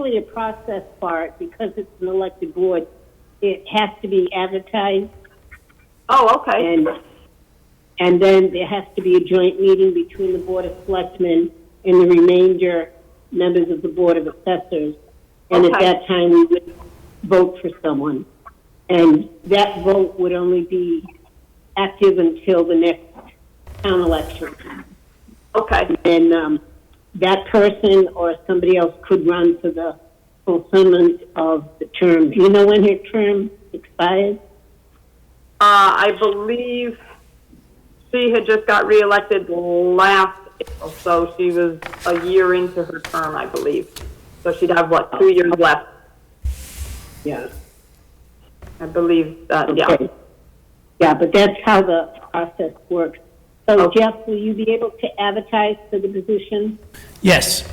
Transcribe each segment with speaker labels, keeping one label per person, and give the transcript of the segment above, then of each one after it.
Speaker 1: really a process for it because it's an elected board. It has to be advertised
Speaker 2: Oh, okay.
Speaker 1: and, and then there has to be a joint meeting between the Board of Selectmen and the remainder members of the Board of Assessors. And at
Speaker 2: Okay.
Speaker 1: that time, we would vote for someone. And that vote would only be active until the next town election.
Speaker 2: Okay.
Speaker 1: And, um, that person or somebody else could run for the fulfillment of the term. Do you know when her term expires?
Speaker 2: Uh, I believe she had just got reelected last April, so she was a year into her term, I believe. So she'd have, what, two years left,
Speaker 1: Yeah.
Speaker 2: I believe, uh, yeah.
Speaker 1: Okay. Yeah, but that's how the process works. So
Speaker 2: Okay.
Speaker 1: Jeff, will you be able to advertise for the position?
Speaker 3: Yes.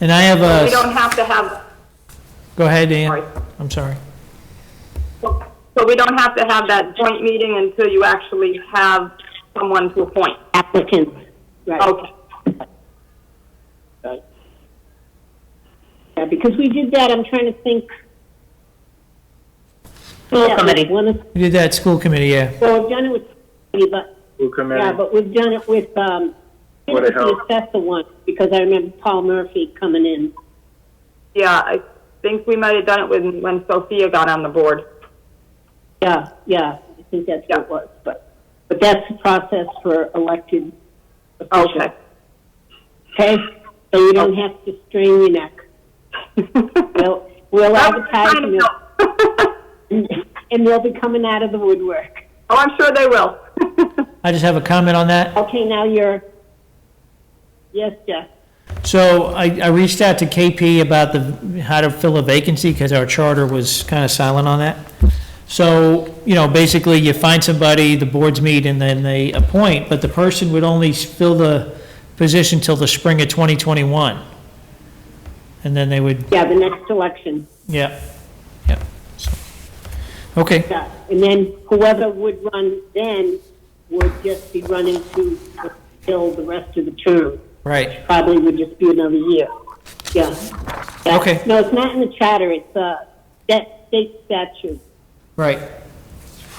Speaker 3: And I have
Speaker 2: We
Speaker 3: a,
Speaker 2: don't have to have,
Speaker 3: go ahead,
Speaker 2: Sorry.
Speaker 3: Ann. I'm sorry.
Speaker 2: so we don't have to have that joint meeting until you actually have someone to appoint.
Speaker 1: Applicants, right?
Speaker 2: Okay.
Speaker 1: Yeah, because we did that, I'm trying to think. School
Speaker 4: committee.
Speaker 3: We did that school committee, yeah.
Speaker 1: Well, we've done it with, but,
Speaker 5: Who come
Speaker 1: yeah,
Speaker 5: in?
Speaker 1: but we've done it with, um,
Speaker 5: What the hell?
Speaker 1: the assessor one, because I remember Paul Murphy coming in.
Speaker 2: Yeah, I think we might have done it when, when Sophia got on the board.
Speaker 1: Yeah, yeah, I think that's what it was, but, but that's the process for elected officials.
Speaker 2: Okay.
Speaker 1: Okay, so you don't have to strain your neck. We'll, we'll
Speaker 2: That was
Speaker 1: advertise
Speaker 2: kind of
Speaker 1: and they'll,
Speaker 2: helpful.
Speaker 1: and they'll be coming out of the woodwork.
Speaker 2: Oh, I'm sure they will.
Speaker 3: I just have a comment on that.
Speaker 1: Okay, now you're, yes, Jeff,
Speaker 3: So I, I reached out to KP about the, how to fill a vacancy, because our charter was kind of silent on that. So, you know, basically, you find somebody, the boards meet, and then they appoint, but the person would only fill the position till the spring of 2021. And then they would,
Speaker 1: yeah, the next election,
Speaker 3: yeah, yeah, so, okay,
Speaker 1: yeah. And then whoever would run then would just be running to fill the rest of the term.
Speaker 3: right.
Speaker 1: Probably would just be another year, yeah. Yeah.
Speaker 3: Okay.
Speaker 1: No, it's not in the charter, it's, uh, that state statute.
Speaker 3: Right.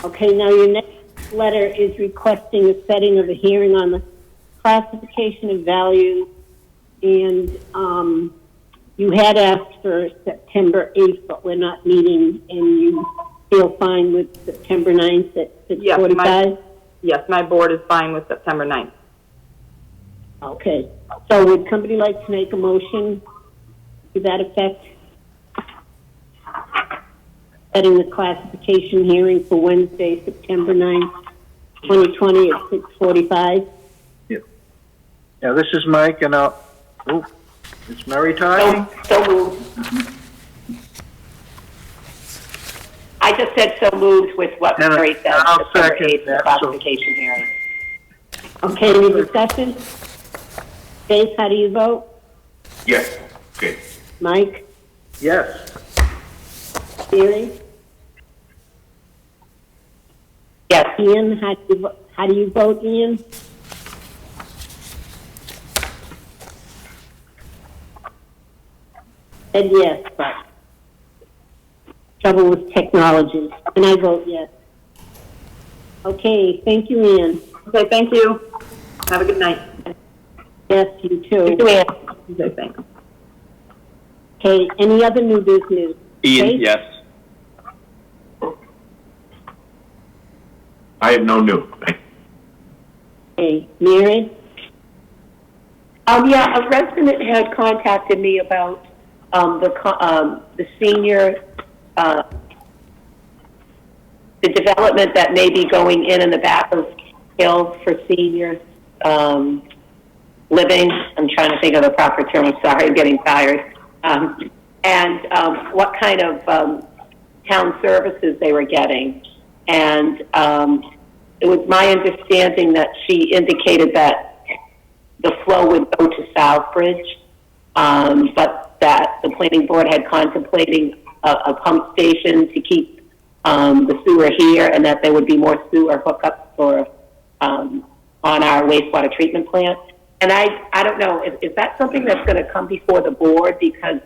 Speaker 1: Okay, now your next letter is requesting a setting of a hearing on the classification of value, and um, you had asked for September 8th, but we're not meeting, and you feel fine with September 9th at
Speaker 2: Yes, my-
Speaker 1: 6:45?
Speaker 2: Yes, my board is fine with September 9th.
Speaker 1: Okay, so would somebody like to make a motion to that effect? Setting the classification hearing for Wednesday, September 9th, 2020 at 6:45?
Speaker 5: Yeah, this is Mike, and uh, oh, it's Mary Ty.
Speaker 4: So, so moved. I just said so moved with what
Speaker 5: And
Speaker 4: Mary said,
Speaker 5: I'll
Speaker 4: September
Speaker 5: second
Speaker 4: 8th, the
Speaker 5: that, so-
Speaker 4: classification hearing.
Speaker 1: Okay, any discussion? Dave, how do you vote?
Speaker 6: Yes, okay.
Speaker 1: Mike?
Speaker 5: Yes.
Speaker 1: Mary?
Speaker 4: Yes,
Speaker 1: Ian, how do you, vo- how do you vote, Ian? Said yes, but trouble with technology, and I vote yes. Okay, thank you, Ian.
Speaker 2: Okay, thank you. Have a good night.
Speaker 1: Yes, you too.
Speaker 4: Luann,
Speaker 2: Okay, thanks.
Speaker 1: Okay, any other new business? Okay?
Speaker 6: Ian, yes. I have no new.
Speaker 1: Okay, Mary?
Speaker 4: Um, yeah, a resident had contacted me about, um, the, co- um, the senior, uh, the development that may be going in in the back of Hill for senior, um, living. I'm trying to think of the proper term, I'm sorry, I'm getting tired. Um, and, um, what kind of, um, town services they were getting. And, um, it was my understanding that she indicated that the flow would go to Southbridge, um, but that the planning board had contemplating a, a pump station to keep um, the sewer here, and that there would be more sewer hookups for um, on our wastewater treatment plant. And I, I don't know, is, is that something that's going to come before the board? Because